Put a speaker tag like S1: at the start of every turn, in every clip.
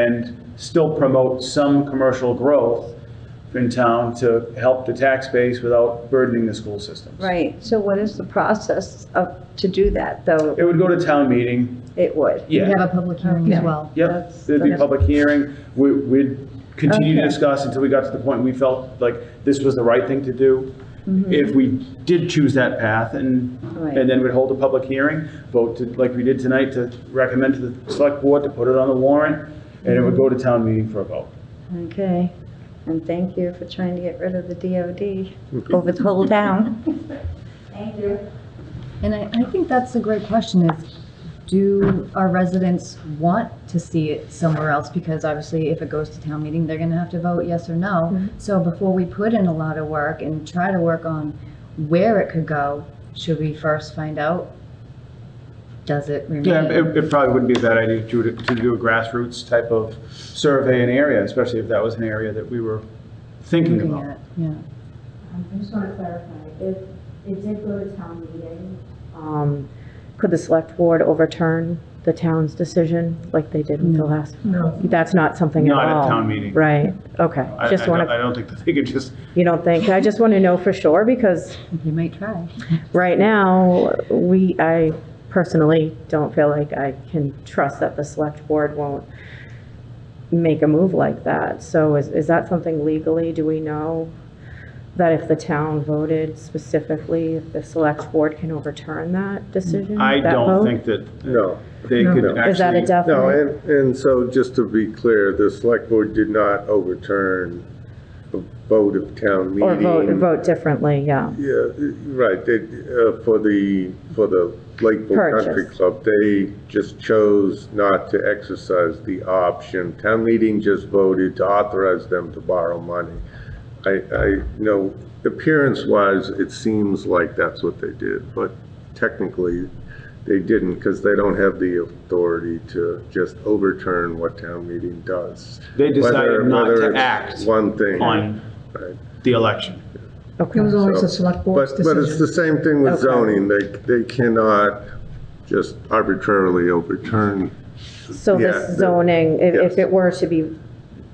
S1: and still promote some commercial growth in town to help the tax base without burdening the school systems.
S2: Right, so what is the process of, to do that, though?
S1: It would go to town meeting,
S2: It would.
S1: yeah.
S3: We'd have a public hearing as well.
S1: Yep,
S2: That's-
S1: there'd be a
S2: that's-
S1: public hearing. We- We'd continue to
S2: Okay.
S1: discuss until we got to the point we felt like this was the right thing to do. If we did choose that path and,
S2: Mm-hmm. Right.
S1: and then we'd hold a public hearing, vote to, like we did tonight, to recommend to the select board to put it on the warrant, and it would go to town meeting for a vote.
S2: Okay, and thank you for trying to get rid of the DOD over the whole town.
S3: And I, I think that's a great question is, do our residents want to see it somewhere else? Because obviously, if it goes to town meeting, they're gonna have to vote yes or
S4: Mm-hmm.
S3: no. So before we put in a lot of work and try to work on where it could go, should we first find out? Does it
S1: Yeah,
S3: remain?
S1: it, it probably wouldn't be a bad idea to, do- to do a grassroots type of survey in area, especially if that was an area that we were thinking
S3: Looking
S1: about.
S3: at, yeah.
S5: Um, I just want to clarify, if it did go to town meeting. um, Could the select board overturn the town's decision like they did with the last? No. That's not something at all?
S1: Not at town meeting.
S5: Right, okay.
S1: I, I
S5: Just want
S1: don't, I
S5: to,
S1: don't think that they could just
S5: you don't think, I just want to know for sure because
S3: You might try.
S5: right now, we, I personally don't feel like I can trust that the select board won't make a move like that. So is, is that something legally, do we know that if the town voted specifically, if the select board can overturn that decision?
S1: I
S5: Mm, that
S1: don't
S5: vote?
S1: think that
S4: No,
S1: they could
S4: No.
S1: actually.
S5: Is that a
S4: no,
S5: definite?
S4: and, and so just to be clear, the select board did not overturn a vote of town meeting.
S5: Or vote, vote differently, yeah.
S4: Yeah, uh, right, they, uh, for the, for the Lakeville Country
S5: Purchase.
S4: Club, they just chose not to exercise the option. Town meeting just voted to authorize them to borrow money. I, I, you know, appearance-wise, it seems like that's what they did, but technically, they didn't, because they don't have the authority to just overturn what town meeting does.
S1: They decided
S4: Whether-
S1: not
S4: whether
S1: to
S4: it's
S1: act
S4: One thing.
S1: on
S4: Right.
S1: the election.
S5: Okay.
S4: always a select board's decision. But it's the same thing with
S5: Okay.
S4: zoning, they, they cannot just arbitrarily overturn.
S5: So
S4: Yeah,
S5: this
S4: the-
S5: zoning, if, if
S4: yes.
S5: it were to be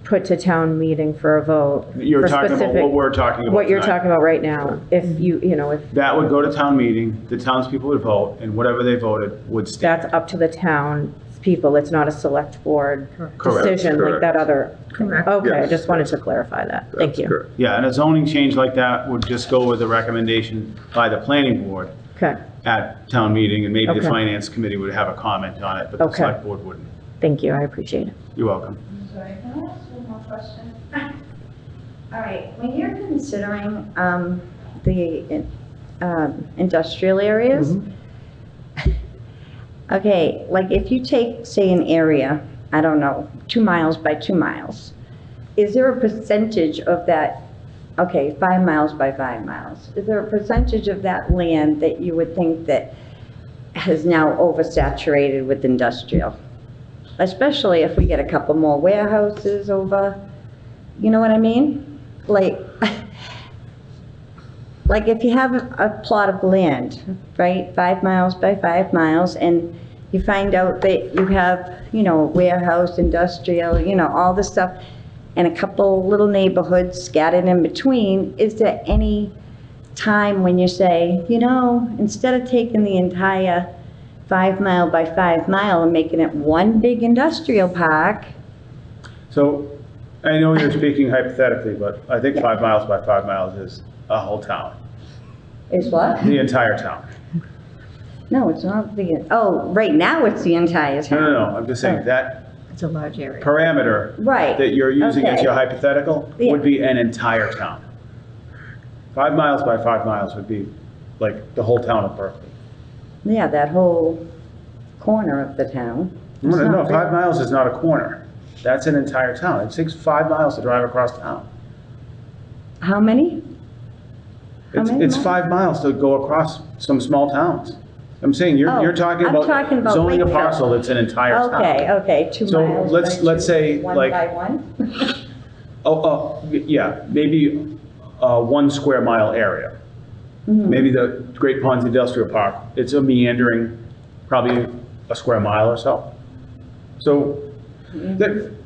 S5: put to town meeting for a vote.
S1: You're
S5: for
S1: talking about
S5: specific-
S1: what we're talking about
S5: What you're
S1: tonight.
S5: talking about right now, if you, you know, if
S1: That would go to town meeting, the townspeople would vote, and whatever they voted would stand.
S5: that's up to the town people, it's not a select board
S1: Correct.
S5: decision like that other.
S3: Correct.
S5: Okay, I
S4: Yes.
S5: just wanted to clarify that, thank
S4: That's
S5: you.
S4: correct.
S1: Yeah, and a zoning change like that would just go with a recommendation by the planning board
S5: Okay,
S1: at town meeting, and maybe the
S5: Okay.
S1: finance committee would have a comment on it, but the
S5: Okay.
S1: select board wouldn't.
S5: thank you, I appreciate it.
S1: You're welcome.
S2: Sorry, can I ask one more question? All right, when you're considering um, the um, industrial areas, okay, like if you take, say, an area, I don't know, two miles by two miles, is there a percentage of that, okay, five miles by five miles, is there a percentage of that land that you would think that has now oversaturated with industrial? especially if we get a couple more warehouses over, you know what I mean? Like, like if you have a plot of land, right, five miles by five miles, and you find out that you have, you know, warehouse, industrial, you know, all this stuff, and a couple little neighborhoods scattered in between, is there any time when you say, you know, instead of taking the entire five mile by five mile and making it one big industrial park.
S1: So, I know you're speaking hypothetically, but I think five miles by five miles is a whole town,
S2: Is what?
S1: the entire town.
S2: No, it's not the, oh, right now it's the entire
S1: No, no,
S2: town.
S1: no, I'm just saying that
S3: It's a large area.
S1: parameter
S2: Right,
S1: that you're using as
S2: Okay.
S1: your hypothetical
S2: Yeah.
S1: would be an entire town. Five miles by five miles would be like the whole town of Berkeley.
S2: yeah, that whole corner of the town.
S1: No, no,
S2: not
S1: five
S2: bad.
S1: miles is not a corner. That's an entire town. It takes five miles to drive across town.
S2: How many? How
S1: It's,
S2: many
S1: it's
S2: miles?
S1: five miles to go across some small towns. I'm saying you're,
S2: Oh,
S1: you're talking
S2: I'm talking
S1: about
S2: about
S1: zoning a
S2: Lakeville.
S1: parcel that's an entire town.
S2: Okay, okay, two
S1: So
S2: miles.
S1: let's-
S2: by
S1: let's
S2: two,
S1: say, like-
S2: One by one?
S1: Oh, oh, y- yeah, maybe uh, one square mile area.
S2: Mm-hmm.
S1: Maybe the Great Ponds Industrial Park, it's a
S2: Mm-hmm.
S1: meandering, probably a square mile or so. So, that,